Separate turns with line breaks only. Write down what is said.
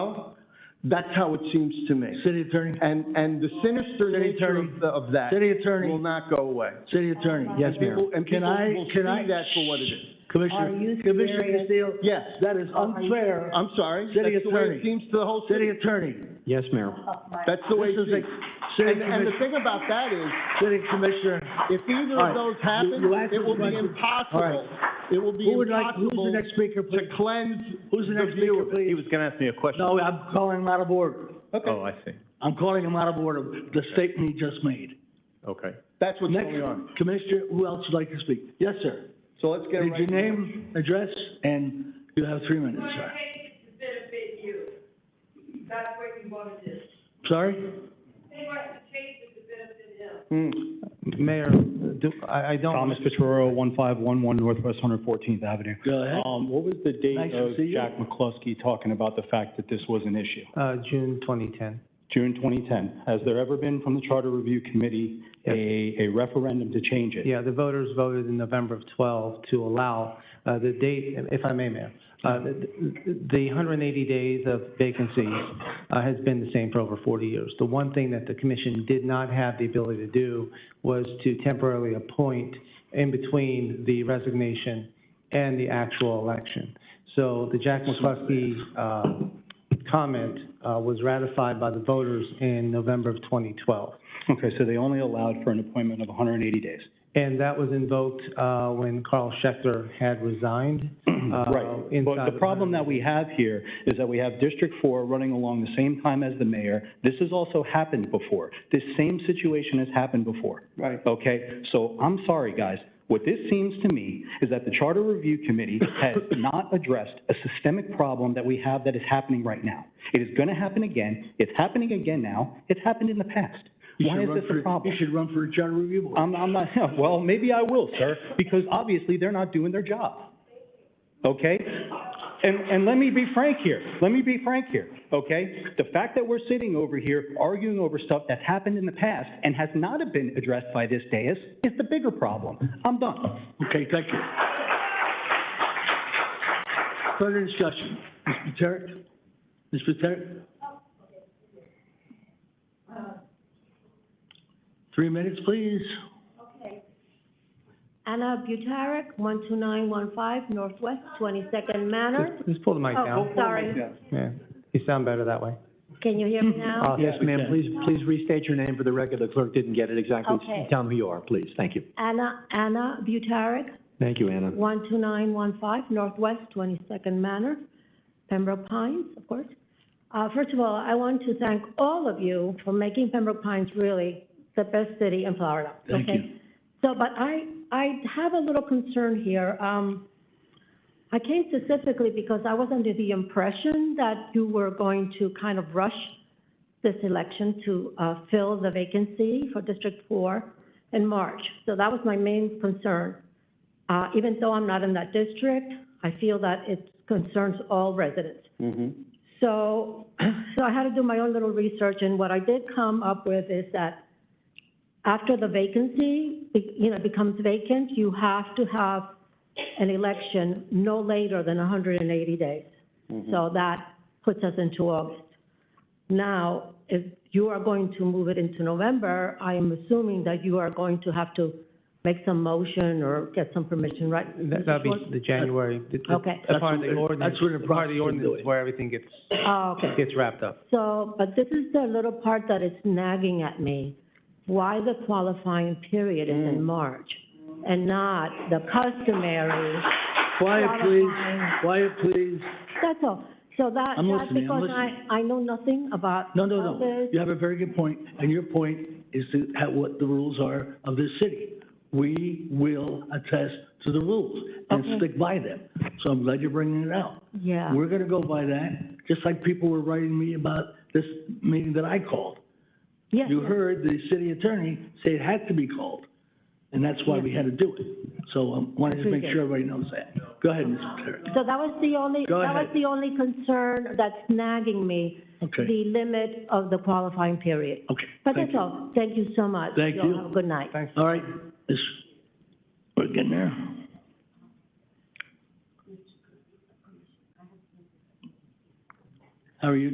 That's how it seems to me.
City attorney,
And, and the sinister
City
nature
attorney.
of the- of that
city
will
attorney,
not go away.
city attorney, yes, Mayor.
People- And
Can
people
I?
will see
Can I?
that for what it is.
Are
Commissioner,
you
Commissioner
serious?
Castillo,
Yes,
that is unfair.
I'm sorry.
City
That's the way it
attorney.
seems to the whole city.
City attorney,
Yes, Mayor.
Up my-
That's the way it
This is a-
seems.
city
And, and the
commissioner,
thing about that is,
city commissioner.
if either
All right.
of those
You- you asked
happen, it
us
will
about
be
the- all
impossible.
right.
It will be
Who would like, who's the
impossible
next speaker,
to
please?
cleanse
Who's the
the
next
view
speaker,
of it.
please?
was gonna ask me a question.
No, I'm calling him out of order.
Oh,
Okay,
I see.
I'm calling him out of order, the statement he just made.
Okay.
that's what's
Next,
going on.
Commissioner, who else would like to speak? Yes, sir.
So let's get
Did
right.
your name, address, and you have three minutes,
want to
sir.
take it to benefit you. That's what you want to do.
Sorry?
They want to change it to benefit him.
Hmm.
Mayor, do, I, I don't. Thomas Pichardo, one five one one Northwest Hundred Fourteenth Avenue.
Go ahead.
Um, what was the
Nice
date
to
of
see you.
Jack McCluskey talking about the fact that this was an issue?
Uh, June twenty ten.
June 2010. Has there ever been from the Charter Review Committee
Yes.
a, a referendum to change it?
Yeah, the voters voted in November of twelve to allow, uh, the date, if I may, Mayor. Uh, the, the hundred and eighty days of vacancies, uh, has been the same for over forty years. The one thing that the commission did not have the ability to do was to temporarily appoint in between the resignation and the actual election. So the Jack McCluskey, uh, comment, uh, was ratified by the voters in November of twenty twelve.
Okay, so they only allowed for an appointment of 180 days.
And that was invoked uh, when Carl Schechter had resigned.
Uh,
Right. But the problem that we have here is that we have District Four running along the same time as the mayor. This has also happened before. This same situation has happened before.
Right.
Okay, so I'm sorry, guys. What this seems to me is that the Charter Review Committee has not addressed a systemic problem that we have that is happening right now. It is going to happen again. It's happening again now. It's happened in the past.
You
Why
should
is
run
this
for-
a problem?
You should run for a charter review board.
I'm, I'm not, well, maybe I will, sir, because obviously they're not doing their job. Okay? And, and let me be frank here. Let me be frank here, okay? The fact that we're sitting over here arguing over stuff that's happened in the past and has not been addressed by this dais is the bigger problem. I'm done.
Okay, thank you. Further discussion. Ms. Paterick? Ms. Paterick? Three minutes, please.
Okay. Anna Butarek, 12915 Northwest 22nd Manor.
Just- Just pull the mic
Oh,
down.
sorry.
Yeah, you sound better that way.
Can you hear me now?
Yes, ma'am, please.
Please restate your name for the record. The clerk didn't get it exactly.
Okay.
Tell me who you are, please. Thank you.
Anna, Anna Butarek,
Thank you, Anna.
12915 Northwest 22nd Manor, Pembroke Pines, of course. Uh, First of all, I want to thank all of you for making Pembroke Pines really the best city in Florida.
Thank
okay? So, but I, I have a little concern here. Um, I came specifically because I was under the impression that you were going to kind of rush this election to uh, fill the vacancy for District 4 in March. So that was my main concern. Uh, Even though I'm not in that district, I feel that it concerns all residents.
Mm-hmm.
So, so I had to do my own little research, and what I did come up with is that after the vacancy, be- you know, becomes vacant, you have to have an election no later than 180 days.
Mm-hmm.
So
Mm.
that puts us into August. Now, if you are going to move it into November, I am assuming that you are going to have to make some motion or get some permission, right?
That- That'd be the January. the- the-
Okay.
The part of the
That's what-
ordinance,
that's what the
the
process
part of the
is
ordinance
doing.
is where everything gets,
Oh, okay.
gets wrapped up.
So, but this is the little part that is nagging at me. Why the qualifying period is
Mm.
in March and not the customary?
Quiet, please.
qualifying-
Quiet, please.
That's all. So that,
I'm
that's
listening, I'm
because I, I know nothing about.
No, no,
about
no.
this.
You have a very good point, and your point is to have what the rules are of this city. We will attest to the rules and
Okay.
stick by them. So I'm glad you're bringing it out.
Yeah,
We're gonna go by that, just like people were writing me about this meeting that I called.
yes,
You heard the city attorney say it had to be called, and that's why we had to do it. So I wanted to make sure everybody knows that. Go ahead, Ms. Patrick.
so that was the only, that
Go
was
ahead.
the only concern that's nagging me,
Okay,
the limit of the qualifying period.
okay.
But
thank
that's all. Thank you so much.
Thank you.
all have a good night.
you. All right, this, we're getting there. How are you